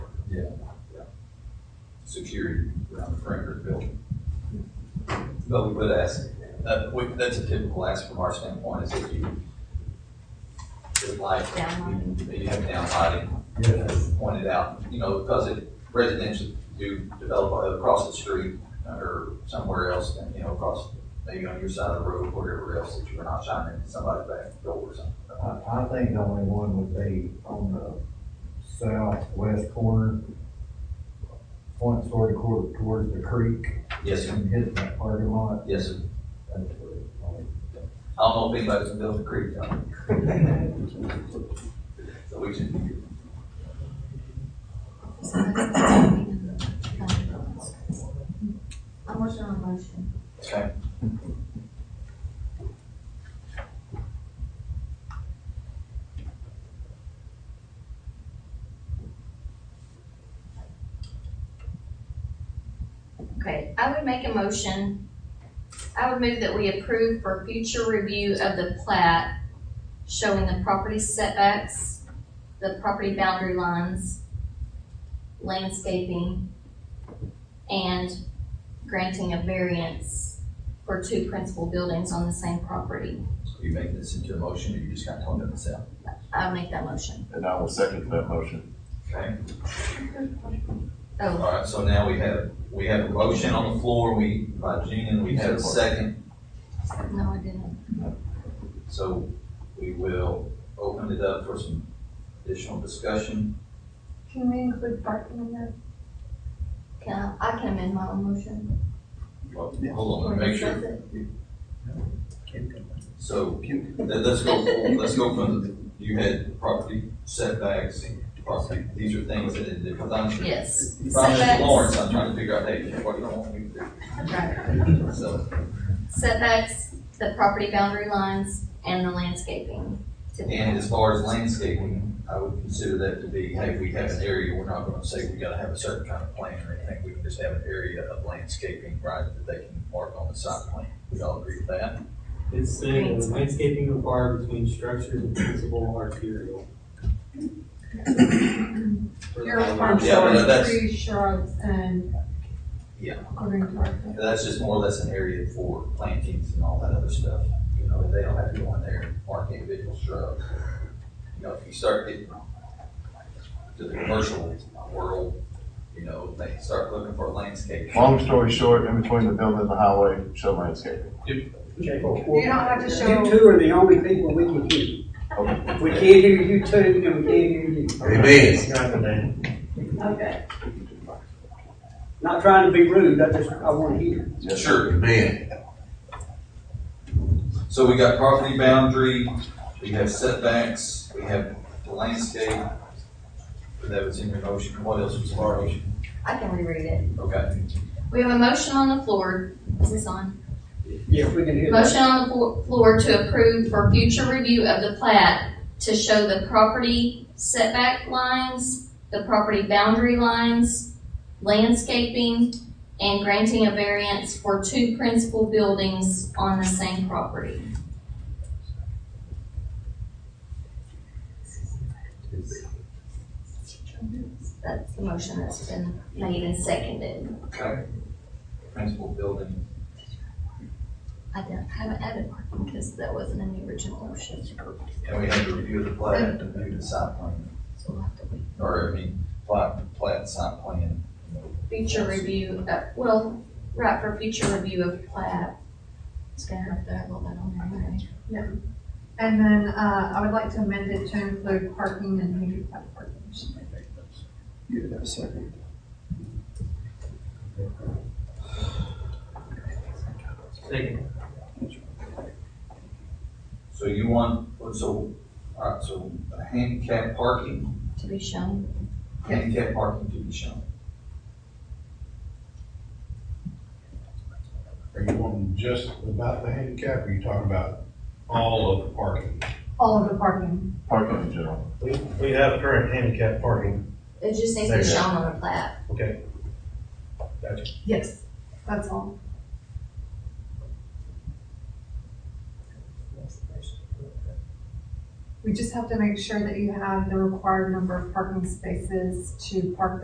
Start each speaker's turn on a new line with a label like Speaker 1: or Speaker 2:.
Speaker 1: security around the perimeter of the building.
Speaker 2: But we would ask, uh, we, that's a typical ask from our standpoint, is if you, if like,
Speaker 3: Downlight.
Speaker 2: you have downlighting, as pointed out, you know, because if residents do develop across the street uh, or somewhere else, and, you know, across, maybe on your side of the road, wherever else, that you're not shining into somebody's back door or something.
Speaker 4: I, I think the only one would be on the southwest corner, point sort of quarter towards the creek,
Speaker 2: Yes, sir.
Speaker 4: and hit that parking lot.
Speaker 2: Yes, sir.
Speaker 4: That's where it's probably-
Speaker 2: I don't know if anybody's gonna build a creek, John. So we should,
Speaker 3: I'm working on a motion.
Speaker 2: Okay.
Speaker 3: Okay, I would make a motion, I would move that we approve for future review of the plat showing the property setbacks, the property boundary lines, landscaping, and granting a variance for two principal buildings on the same property.
Speaker 2: are you making this into a motion, or you just kinda talking this out?
Speaker 3: I'll make that motion.
Speaker 5: And I will second that motion.
Speaker 2: Okay?
Speaker 3: Oh,
Speaker 2: All right, so now we have, we have a motion on the floor, we, by Gene, and we have a second,
Speaker 3: no, I didn't.
Speaker 2: so we will open it up for some additional discussion.
Speaker 6: Can we include parking in that?
Speaker 3: Can I, I can amend my own motion?
Speaker 2: Well, Hold on, let me make
Speaker 3: Or
Speaker 2: sure,
Speaker 3: does it-
Speaker 2: so, let- let's go, from- let's go from, the- you had property setbacks, property, these are things that, it- because I'm sure.
Speaker 3: Yes.
Speaker 2: If I'm Mr.
Speaker 3: Setbacks.
Speaker 2: Lawrence, I'm trying to figure out, hey, what do you want me to
Speaker 3: Right.
Speaker 2: do? So,
Speaker 3: Setbacks, the property boundary lines, and the landscaping. to be-
Speaker 2: and as far as landscaping, I would consider that to be, hey, we have an area, we're not gonna say we gotta have a certain kind of plan or anything, we can just have an area of landscaping, right, that they can mark on the site plan. We all agree with that?
Speaker 7: It's saying that landscaping required between structures and principal arterial. For the
Speaker 6: Your farm
Speaker 7: highway.
Speaker 2: Yeah, but
Speaker 6: shores,
Speaker 2: that's-
Speaker 6: trees, shrubs, and.
Speaker 2: Yeah.
Speaker 6: According to our. plan.
Speaker 2: That's just more or less an area for plantings and all that other stuff, you know, they don't have to go in there and mark individual shrubs. You know, if you start getting to the commercial world, you know, they start looking for landscape.
Speaker 5: Long story short, in between the building and the highway, show landscaping.
Speaker 6: You don't have to show-
Speaker 8: You two are the only people we can hear.
Speaker 5: Okay.
Speaker 8: We can't hear you two, and we can't hear you.
Speaker 6: Okay.
Speaker 8: Not trying to be rude, I just, I wanna hear.
Speaker 5: Yes, sir.
Speaker 2: Sure. So we got property boundary, we have setbacks, we have the landscape. That was in your motion. What else was in our motion?
Speaker 3: I can reread it.
Speaker 2: Okay.
Speaker 3: We have a motion on the floor. Is this on?
Speaker 8: Yeah, we can hear that.
Speaker 3: Motion on the flo- floor to approve for future review of the plat to show the property setback lines, the property boundary lines, landscaping, and granting a variance for two principal buildings on the same property. That's the motion that's been made and seconded.
Speaker 2: Okay. Principal building.
Speaker 3: I don't, haven't added parking because that wasn't in the original motion. So
Speaker 2: And we have to review the plat, and review the site plan,
Speaker 3: we'll have to wait.
Speaker 2: or I mean, plat, plat, site plan. you know.
Speaker 3: Future review, uh, well, right, for future review of plat. It's gonna have to have all that on there, right?
Speaker 6: And then, uh, I would like to amend it to include parking and handicap parking.
Speaker 1: You have a second.
Speaker 7: Second,
Speaker 2: So you want, so, all right, so handicap parking,
Speaker 3: To be shown.
Speaker 2: handicap parking to be shown.
Speaker 9: Are you wanting just about the handicap, or are you talking about all of the parking?
Speaker 6: All of the parking.
Speaker 5: Parking in general.
Speaker 10: We, we have current handicap parking.
Speaker 3: It just needs to be
Speaker 10: Second.
Speaker 3: shown on the plat.
Speaker 6: Yes. That's all. We just have to make sure that you have the required number of parking spaces to park the